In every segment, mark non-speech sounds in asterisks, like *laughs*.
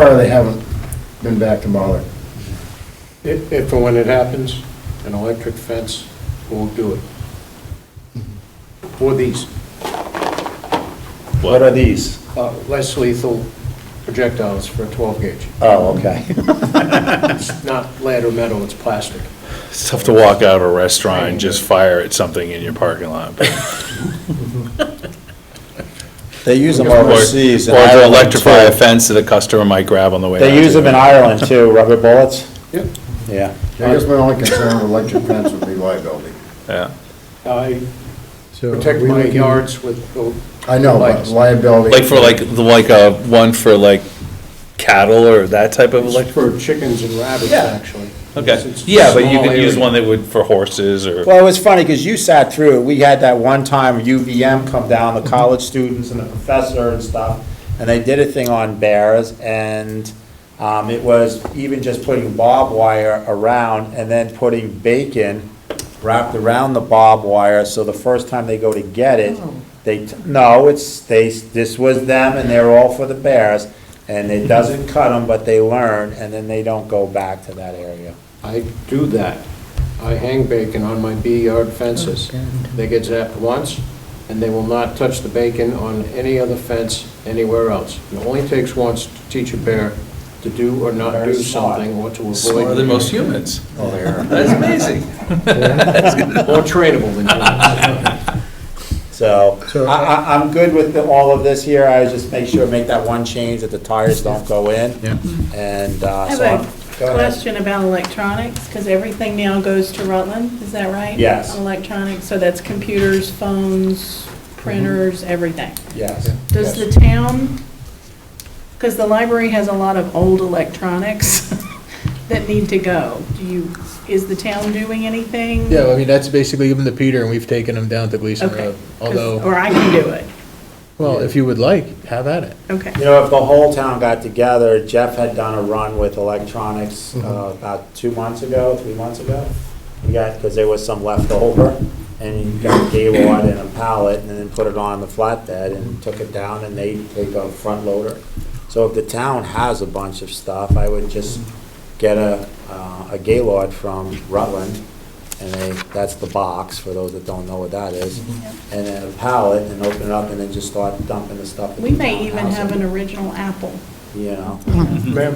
far, they haven't been back to Mahler. If, if or when it happens, an electric fence won't do it. Or these, What are these? *laughs* uh, less lethal projectiles for a 12 gauge. Oh, *laughs* okay. *laughs* It's not lead or metal, it's plastic. It's tough to walk out of a restaurant and just fire at something in your parking lot. They use them Or overseas in or to Ireland electrify a too. fence that a customer might grab on the way out. They use them in Ireland too, rubber bullets, Yep. yeah. I guess my only concern with electric fence would be liability. Yeah. I So protect are we my looking- yards with, oh, I know, but liability. Like for like, the like a, one for like cattle or that type of it's electric? for chickens and rabbits, Yeah. actually. It's- Okay, it's a yeah, but you small could use area. one that would, for horses or. Well, it was funny, because you sat through, it. we had that one time UVM come down, the college students and the professor and stuff, and they did a thing on bears, and um, it was even just putting barbed wire around and then putting bacon wrapped around the barbed wire, so the first time they go to get it, they, t- no, it's, they, this was them, and they're all for the bears, and it doesn't cut them, but they learn, and then they don't go back to that area. I do that. I hang bacon on my bee yard Oh, fences. They get zapped once, and they will not touch the bacon on any other fence anywhere else. It only takes once to teach a bear to do or not do Very smart. something, or to Smarter than avoid, most humans. That's amazing. *laughs* more trainable than humans. So, So- I, I, I'm good with the- all of this here, I just make sure, make that one change that the tires don't go in. Yeah. And, uh, I so. I'm- have go a ahead. question about electronics, because everything now goes to Rutland, is that right? Yes. Electronics, so that's computers, phones, printers, everything. Yes. Does the Mm-hmm. Yes. town, because the library has a lot of old electronics *laughs* that need to go. Do you, is the town doing anything? *laughs* Yeah, I mean, that's basically given to Peter, and we've taken him down to uh, Gleason Okay. Road. 'Cause- Although, Or I can do it, well, if you would like, have at it. okay. You know, if the whole town got together, Jeff had done a run with electronics, uh, about two months ago, three months ago. We got, because there was some left over, and he got a gaywad and a pallet, and then put it on the flatbed and took it down, and they take a front loader. So if the town has a bunch of stuff, I would just get a, uh, a gaylord from Rutland, and they, that's the box, for those that don't know what that is, Mm-hmm. and then a pallet, and open it up, and then just start dumping the stuff. that We the may town even has have in an original apple. you know.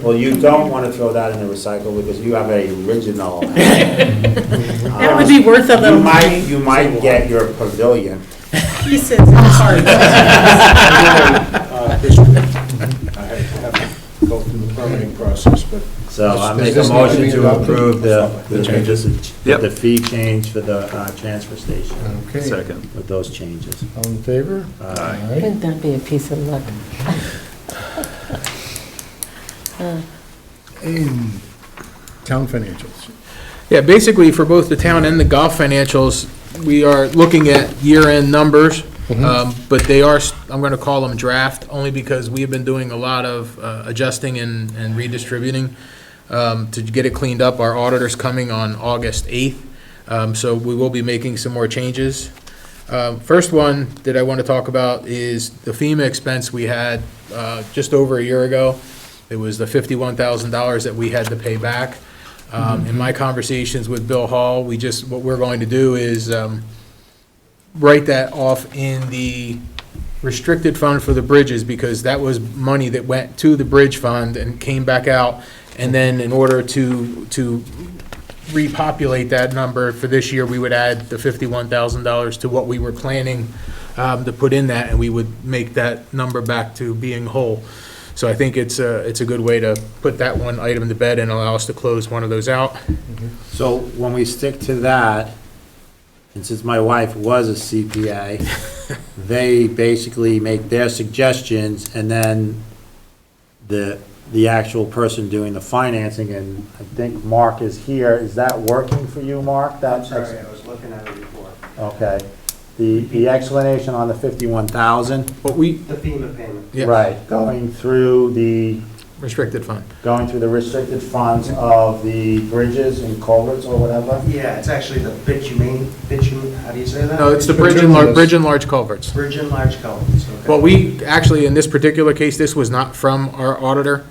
Well, you don't want to throw that in the recycle because you have a *laughs* original. uh, That would be worth a You little might, money. you might get your pavilion. Pieces and *laughs* parts. Uh, this- I have to have to go through the permitting process, but So I Does- make a does this need to motion be to adopted? approve the, the The changes. the- the fee change for the uh, transfer station Uh-huh. Okay, Second. with those changes. all in favor? Uh, All right. Wouldn't that be a piece of luck? And Town financials. Yeah, basically, for both the town and the golf financials, we are looking at year-end numbers, um, but they are, s- I'm going to call them draft, only because we have been doing a lot of uh, adjusting and and redistributing um, to get it cleaned up. Our auditor's coming on August 8th, um, so we will be making some more changes. Uh, First one that I want to talk about is the FEMA expense we had uh, just over a year ago. It was the $51,000 that we had to pay back. Um, In my conversations with Bill Hall, we just, what we're going to do is um, write that off in the restricted fund for the bridges, because that was money that went to the bridge fund and came back out. And then in order to, to repopulate that number for this year, we would add the fifty-one thousand dollars to what we were planning um, to put in that, and we would make that number back to being whole. So I think it's a, it's a good way to put that one item to bed and allow us to close one of those out. So when we stick to that, and since my wife was a CPA, they basically make their suggestions, and then the, the actual person doing the financing, and I think Mark is here, is that working for you, Mark? That ex- I was looking at it before, Okay, the, the explanation on the fifty-one thousand, But we, the FEMA payment. Yeah. right, going through the, restricted fund. going through the restricted funds of the bridges and culverts or whatever? Yeah, it's actually the bitumen, bitumen, how do you say that? No, it's the bridge and, lar- bridge and large culverts. Bridge and large culverts, okay. Well, we, actually, in this particular case, this was not from our auditor.